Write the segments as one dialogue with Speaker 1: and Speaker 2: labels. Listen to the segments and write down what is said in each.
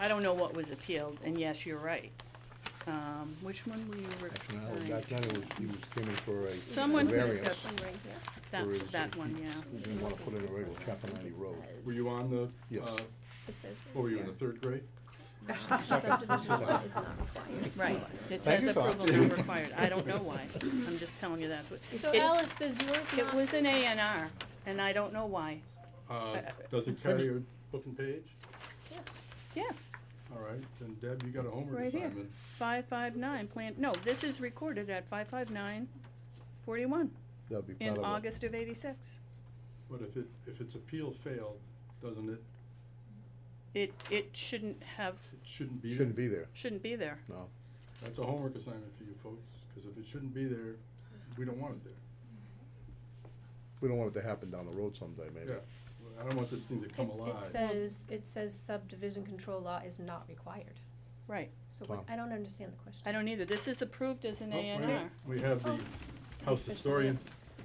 Speaker 1: I don't know what was appealed, and yes, you're right. Um, which one were you
Speaker 2: Actually, no,
Speaker 1: referring?
Speaker 2: back then it was, he was coming for a
Speaker 1: Someone
Speaker 2: a
Speaker 1: who was
Speaker 2: variance
Speaker 1: just-
Speaker 3: One right here.
Speaker 1: That,
Speaker 2: for his-
Speaker 1: that one,
Speaker 2: He
Speaker 1: yeah.
Speaker 2: didn't wanna put in a regular Chapel Lane Road.
Speaker 4: Were you on the,
Speaker 2: Yes.
Speaker 4: uh,
Speaker 3: It says.
Speaker 4: what were you, in the third grade?
Speaker 3: Subdivision law is not required.
Speaker 1: Right, it
Speaker 2: Thank
Speaker 1: says
Speaker 2: you, Tom.
Speaker 1: approval not required, I don't know why, I'm just telling you that's what.
Speaker 3: So
Speaker 1: it-
Speaker 3: Alice, does yours
Speaker 1: It
Speaker 3: not-
Speaker 1: was an A and R, and I don't know why,
Speaker 4: Uh, does it carry your book and page?
Speaker 3: Yeah.
Speaker 1: yeah,
Speaker 4: All right, then Deb, you got a homework
Speaker 1: Right here.
Speaker 4: assignment.
Speaker 1: five five nine, plan, no, this is recorded at five five nine forty-one
Speaker 2: That'd be part
Speaker 1: in
Speaker 2: of it.
Speaker 1: August of eighty-six.
Speaker 4: But if it, if its appeal failed, doesn't it,
Speaker 1: It, it shouldn't have,
Speaker 4: it shouldn't be there?
Speaker 2: Shouldn't be there,
Speaker 1: shouldn't be there.
Speaker 2: no.
Speaker 4: That's a homework assignment for you folks, because if it shouldn't be there, we don't want it there.
Speaker 2: We don't want it to happen down the road someday, maybe.
Speaker 4: Yeah. I don't want this thing to come
Speaker 3: It-
Speaker 4: alive.
Speaker 3: It says, it says subdivision control law is not required.
Speaker 1: Right,
Speaker 3: So what-
Speaker 2: Tom.
Speaker 3: I don't understand the question.
Speaker 1: I don't either, this is approved as an
Speaker 4: Oh,
Speaker 1: A
Speaker 4: wait a
Speaker 1: and
Speaker 4: minute.
Speaker 1: R, Oh.
Speaker 4: We have the house historian,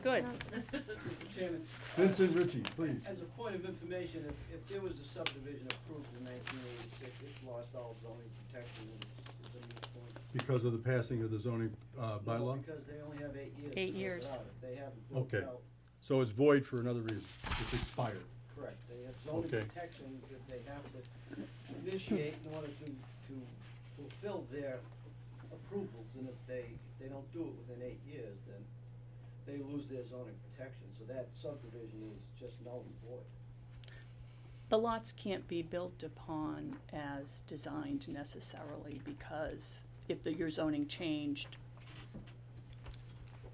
Speaker 1: good,
Speaker 5: Mr. Chairman, uh,
Speaker 4: Vincent Ritchie, please.
Speaker 5: as a point of information, if, if there was a subdivision approved in nineteen eighty-six, it's lost all zoning protection, and it's, it's a moot point.
Speaker 4: Because of the passing of the zoning uh, bylaw?
Speaker 5: Because they only have eight years. to
Speaker 1: Eight
Speaker 5: build it
Speaker 1: years.
Speaker 5: out. If They haven't built
Speaker 4: Okay.
Speaker 5: it out,
Speaker 4: So it's void for another reason. It's expired.
Speaker 5: correct, they have zoning
Speaker 4: Okay.
Speaker 5: protection that they have to initiate in order to, to fulfill their approvals, and if they, if they don't do it within eight years, then they lose their zoning protection, so that subdivision is just null and void.
Speaker 1: the lots can't be built upon as designed necessarily because if the, your zoning changed,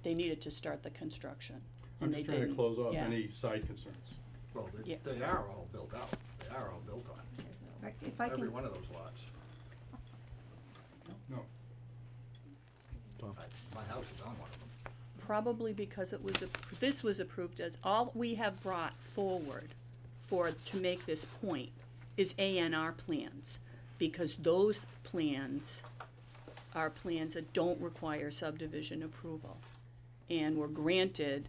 Speaker 1: they needed to start the construction.
Speaker 4: I'm
Speaker 1: and they
Speaker 4: just trying to
Speaker 1: didn't.
Speaker 4: close off
Speaker 1: Yeah.
Speaker 4: any side concerns.
Speaker 6: Well,
Speaker 1: Yeah.
Speaker 6: they, they are all built out, they are all built on,
Speaker 7: If I
Speaker 6: every
Speaker 7: can,
Speaker 6: one of those lots.
Speaker 4: No.
Speaker 2: Tom.
Speaker 6: I- My house is on one of them.
Speaker 1: Probably because it was, appro- this was approved as, all we have brought forward for, to make this point is ANR plans. Because those plans are plans that don't require subdivision approval. And were granted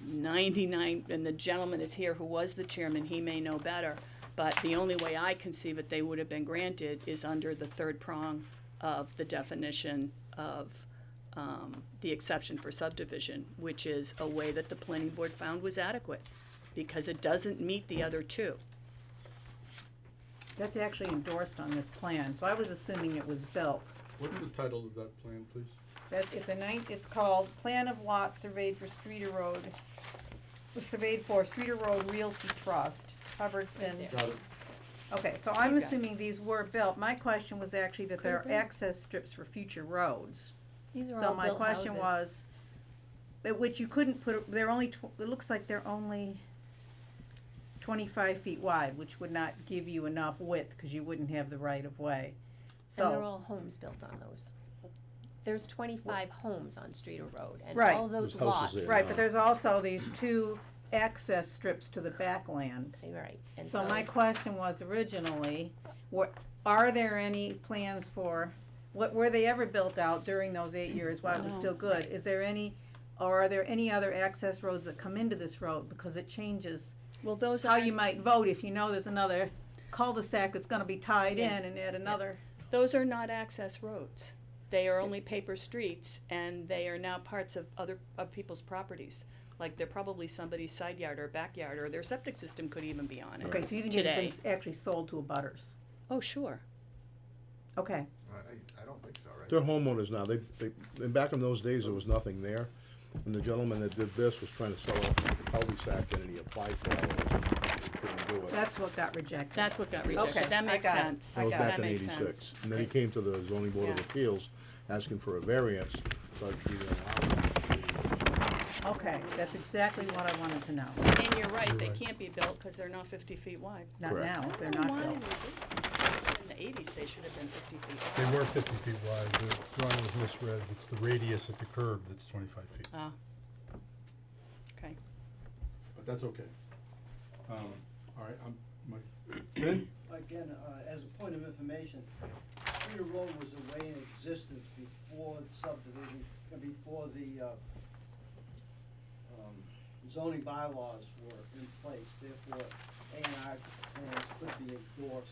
Speaker 1: ninety-nine, and the gentleman is here who was the chairman, he may know better. But the only way I conceive it, they would have been granted is under the third prong of the definition of, um, the exception for subdivision, which is a way that the planning board found was adequate, because it doesn't meet the other two.
Speaker 7: that's actually endorsed on this plan, so I was assuming it was built.
Speaker 4: What's the title of that plan, please?
Speaker 7: That, it's a nine, it's called Plan of Lot Surveyed for Streeter Road, surveyed for Streeter Road Realty Trust, Hubbardston.
Speaker 4: Got it.
Speaker 7: Okay, so I'm
Speaker 1: Okay.
Speaker 7: assuming these were built. My question was actually that there
Speaker 3: Could've
Speaker 7: are
Speaker 3: been.
Speaker 7: access strips for future roads.
Speaker 3: These are
Speaker 7: So
Speaker 3: all
Speaker 7: my
Speaker 3: built houses.
Speaker 7: question was, at which you couldn't put, they're only, tw- it looks like they're only twenty-five feet wide, which would not give you enough width, cause you wouldn't have the right of way.
Speaker 3: And they're
Speaker 7: So,
Speaker 3: all homes built on those. There's twenty-five homes on Streeter Road, and
Speaker 7: Right.
Speaker 3: all those
Speaker 2: Those houses
Speaker 3: lots.
Speaker 2: there.
Speaker 7: right, but there's also these two access strips to the backland.
Speaker 3: Right, and
Speaker 7: So
Speaker 3: so,
Speaker 7: my question was originally, what, are there any plans for, what, were they ever built out during those eight years while it was
Speaker 1: No.
Speaker 7: still good? Is there any, or are there any other access roads that come into this road, because it changes
Speaker 1: Well, those
Speaker 7: how you
Speaker 1: aren't,
Speaker 7: might vote if you know there's another cul-de-sac that's gonna be tied
Speaker 1: Yeah.
Speaker 7: in and add another.
Speaker 1: those are not access roads. They are only paper streets, and they are now parts of other, of people's properties. Like, they're probably somebody's side yard or backyard, or their septic system could even be on it.
Speaker 7: Okay, so you think it's been
Speaker 1: Today.
Speaker 7: s- actually sold to a butters?
Speaker 1: Oh, sure.
Speaker 7: Okay,
Speaker 6: I, I don't think so, right?
Speaker 2: They're homeowners now, they, they, and back in those days, there was nothing there. And the gentleman that did this was trying to sell off the cul-de-sac and he applied for all of it, couldn't do it.
Speaker 7: that's what got rejected.
Speaker 1: That's what got
Speaker 7: Okay,
Speaker 1: rejected. That
Speaker 7: I
Speaker 1: makes
Speaker 7: got it.
Speaker 1: sense.
Speaker 2: That was
Speaker 7: got it.
Speaker 2: back
Speaker 1: That
Speaker 2: in
Speaker 1: makes
Speaker 2: eighty-six.
Speaker 1: sense.
Speaker 2: And then he came to the zoning board of
Speaker 1: Yeah.
Speaker 2: appeals, asking for a variance, but he didn't allow it.
Speaker 7: Okay, that's exactly what I wanted to know,
Speaker 1: And you're right, they can't be built, cause they're not fifty feet wide.
Speaker 7: not
Speaker 2: Correct.
Speaker 7: now, if they're
Speaker 1: I don't know
Speaker 7: not
Speaker 1: why
Speaker 7: built.
Speaker 1: they did. In the eighties, they should have been fifty feet
Speaker 4: They
Speaker 1: wide.
Speaker 4: were fifty feet wide, the drawing was misread, it's the radius at the curb that's twenty-five feet.
Speaker 1: Ah. Okay.
Speaker 4: But that's okay. Um, all right, I'm, my, Ben,
Speaker 5: Again, uh, as a point of information, Cedar Road was a way in existence before the subdivision, uh, before the, uh, um, zoning bylaws were in place, therefore, A and R plans could be endorsed